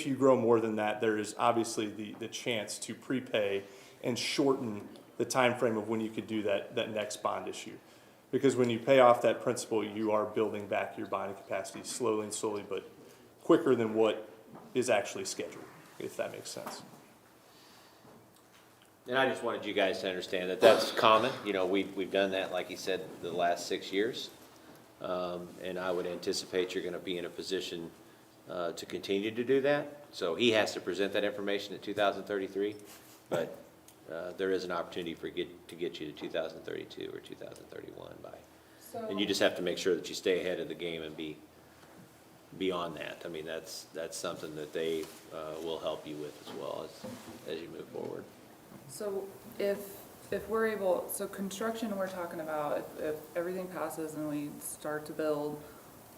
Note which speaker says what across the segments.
Speaker 1: If you grow more than that, there is obviously the, the chance to prepay and shorten the time frame of when you could do that, that next bond issue. Because when you pay off that principal, you are building back your bonding capacity slowly and slowly, but quicker than what is actually scheduled, if that makes sense.
Speaker 2: And I just wanted you guys to understand that that's common, you know, we've, we've done that, like you said, the last six years. Um, and I would anticipate you're gonna be in a position, uh, to continue to do that. So he has to present that information at two thousand thirty-three, but, uh, there is an opportunity for get, to get you to two thousand thirty-two or two thousand thirty-one by.
Speaker 3: So,
Speaker 2: And you just have to make sure that you stay ahead of the game and be beyond that. I mean, that's, that's something that they, uh, will help you with as well as, as you move forward.
Speaker 3: so if, if we're able, so construction we're talking about, if, if everything passes and we start to build,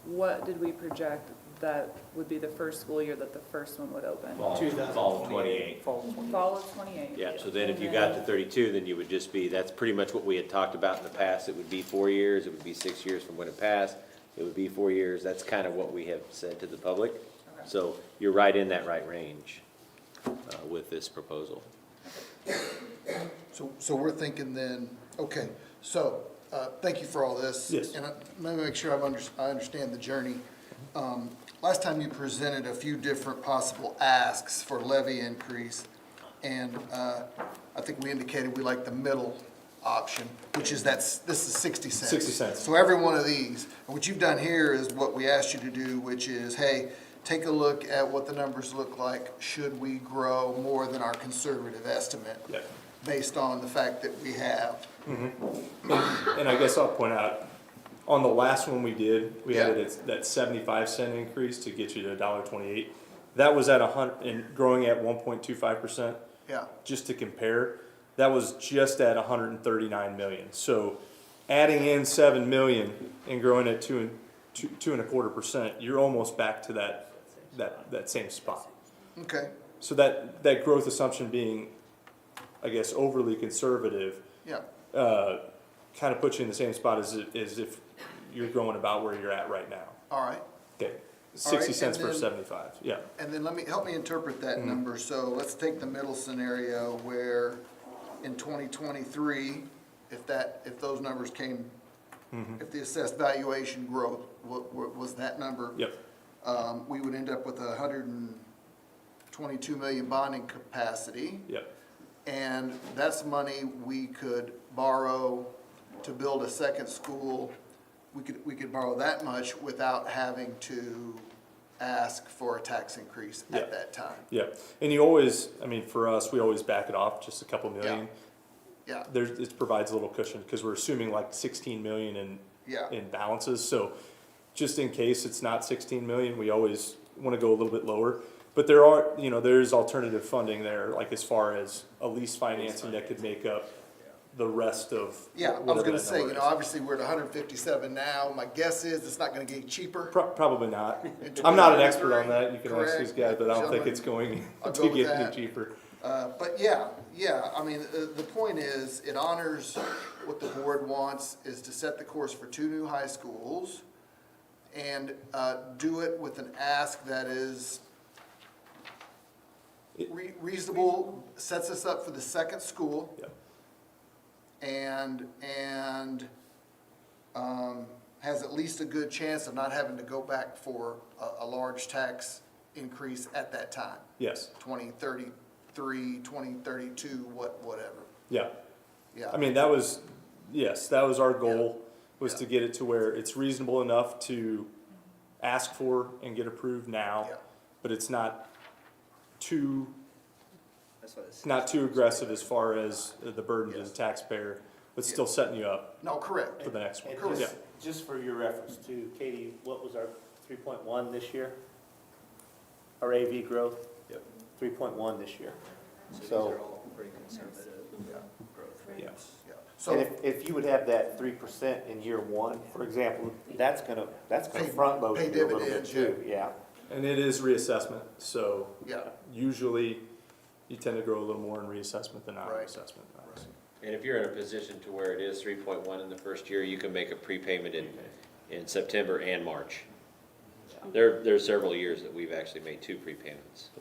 Speaker 3: what did we project that would be the first school year that the first one would open?
Speaker 2: Fall, fall of twenty-eight.
Speaker 3: Fall of twenty-eight?
Speaker 2: Yeah, so then if you got to thirty-two, then you would just be, that's pretty much what we had talked about in the past. It would be four years, it would be six years from when it passed, it would be four years. That's kind of what we have said to the public. So you're right in that right range, uh, with this proposal.
Speaker 4: So, so we're thinking then, okay, so, uh, thank you for all this.
Speaker 1: Yes.
Speaker 4: And I- let me make sure I've under, I understand the journey. Um, last time you presented a few different possible asks for levy increase, and, uh, I think we indicated we like the middle option, which is that's, this is sixty cents.
Speaker 1: 60 cents.
Speaker 4: So every one of these, and what you've done here is what we asked you to do, which is, hey, take a look at what the numbers look like, should we grow more than our conservative estimate?
Speaker 1: Yep.
Speaker 4: based on the fact that we have.
Speaker 1: And I guess I'll point out, on the last one we did, we had
Speaker 4: Yeah.
Speaker 1: it at that seventy-five cent increase to get you to a dollar twenty-eight. That was at a hun, and growing at one point two five percent.
Speaker 4: Yeah.
Speaker 1: Just to compare, that was just at hundred and thirty-nine million, so adding in seven million and growing at two and, two, two and a quarter percent, you're almost back to that, that, that same spot.
Speaker 4: Okay,
Speaker 1: So that, that growth assumption being, I guess, overly conservative,
Speaker 4: yeah,
Speaker 1: uh, kind of puts you in the same spot as, i- as if you're going about where you're at right now.
Speaker 4: all right.
Speaker 1: Okay, sixty
Speaker 4: and
Speaker 1: cents per
Speaker 4: then-
Speaker 1: seventy-five, yeah.
Speaker 4: And then let me, help me interpret that number. So let's take the middle scenario where in 2023, if that, if those numbers came, if the assessed valuation growth wa- wa- was that number.
Speaker 1: Yep,
Speaker 4: Um, we would end up with a hundred and twenty-two million bonding capacity.
Speaker 1: yep,
Speaker 4: And that's money we could borrow to build a second school. We could, we could borrow that much without having to ask for a tax increase
Speaker 1: Yeah.
Speaker 4: at that time.
Speaker 1: yep. And you always, I mean, for us, we always back it off just a couple million.
Speaker 4: Yeah,
Speaker 1: There's, it provides a little cushion, because we're assuming like sixteen million in,
Speaker 4: Yeah.
Speaker 1: in balances, so just in case it's not sixteen million, we always wanna go a little bit lower. But there are, you know, there's alternative funding there, like as far as a lease financing that could make up the rest of.
Speaker 4: yeah, I was
Speaker 1: whatever
Speaker 4: gonna
Speaker 1: that
Speaker 4: say,
Speaker 1: number
Speaker 4: you know,
Speaker 1: is.
Speaker 4: obviously, we're at hundred and fifty-seven now, my guess is it's not gonna get cheaper.
Speaker 1: Pro- Probably not. I'm not an expert on that. You can ask
Speaker 4: Correct.
Speaker 1: these guys, but I don't think it's going
Speaker 4: I'll go
Speaker 1: to
Speaker 4: with
Speaker 1: get any
Speaker 4: that.
Speaker 1: cheaper.
Speaker 4: Uh, but yeah, yeah, I mean, uh, the point is, it honors what the board wants, is to set the course for two new high schools and, uh, do it with an ask that is re- reasonable, sets us up for the second school
Speaker 1: Yep.
Speaker 4: and, and, um, has at least a good chance of not having to go back for a, a large tax increase at that time.
Speaker 1: Yes.
Speaker 4: 2033, 2032, what, whatever.
Speaker 1: Yeah.
Speaker 4: Yeah.
Speaker 1: I mean, that was, yes, that was our goal, was
Speaker 4: Yeah.
Speaker 1: to get it to where it's reasonable enough to ask for and get approved now,
Speaker 4: Yeah.
Speaker 1: but it's not too, not too aggressive as far as the burden to the
Speaker 4: Yes.
Speaker 1: taxpayer, but still setting you up
Speaker 4: No, correct.
Speaker 1: for the next
Speaker 5: And
Speaker 1: one. Yeah.
Speaker 5: just, just for your reference too, Katie, what was our three point one this year? Our AV growth?
Speaker 1: Yep.
Speaker 5: Three point one this year.
Speaker 6: These are
Speaker 5: So,
Speaker 6: all pretty conservative growth rates.
Speaker 1: Yeah.
Speaker 4: Yeah.
Speaker 5: and
Speaker 4: So,
Speaker 5: if, if you would have that three percent in year one, for example, that's gonna, that's gonna front load
Speaker 4: Pay-
Speaker 5: you
Speaker 4: pay
Speaker 5: a little bit
Speaker 4: dividends,
Speaker 5: too, yeah.
Speaker 1: And it is reassessment, so
Speaker 4: yeah,
Speaker 1: usually you tend to grow a little more in reassessment than out of
Speaker 4: Right.
Speaker 1: assessment.
Speaker 2: And if you're in a position to where it is three point one in the first year, you can make a prepayment in, in September and March. There, there are several years that we've actually made two prepayments.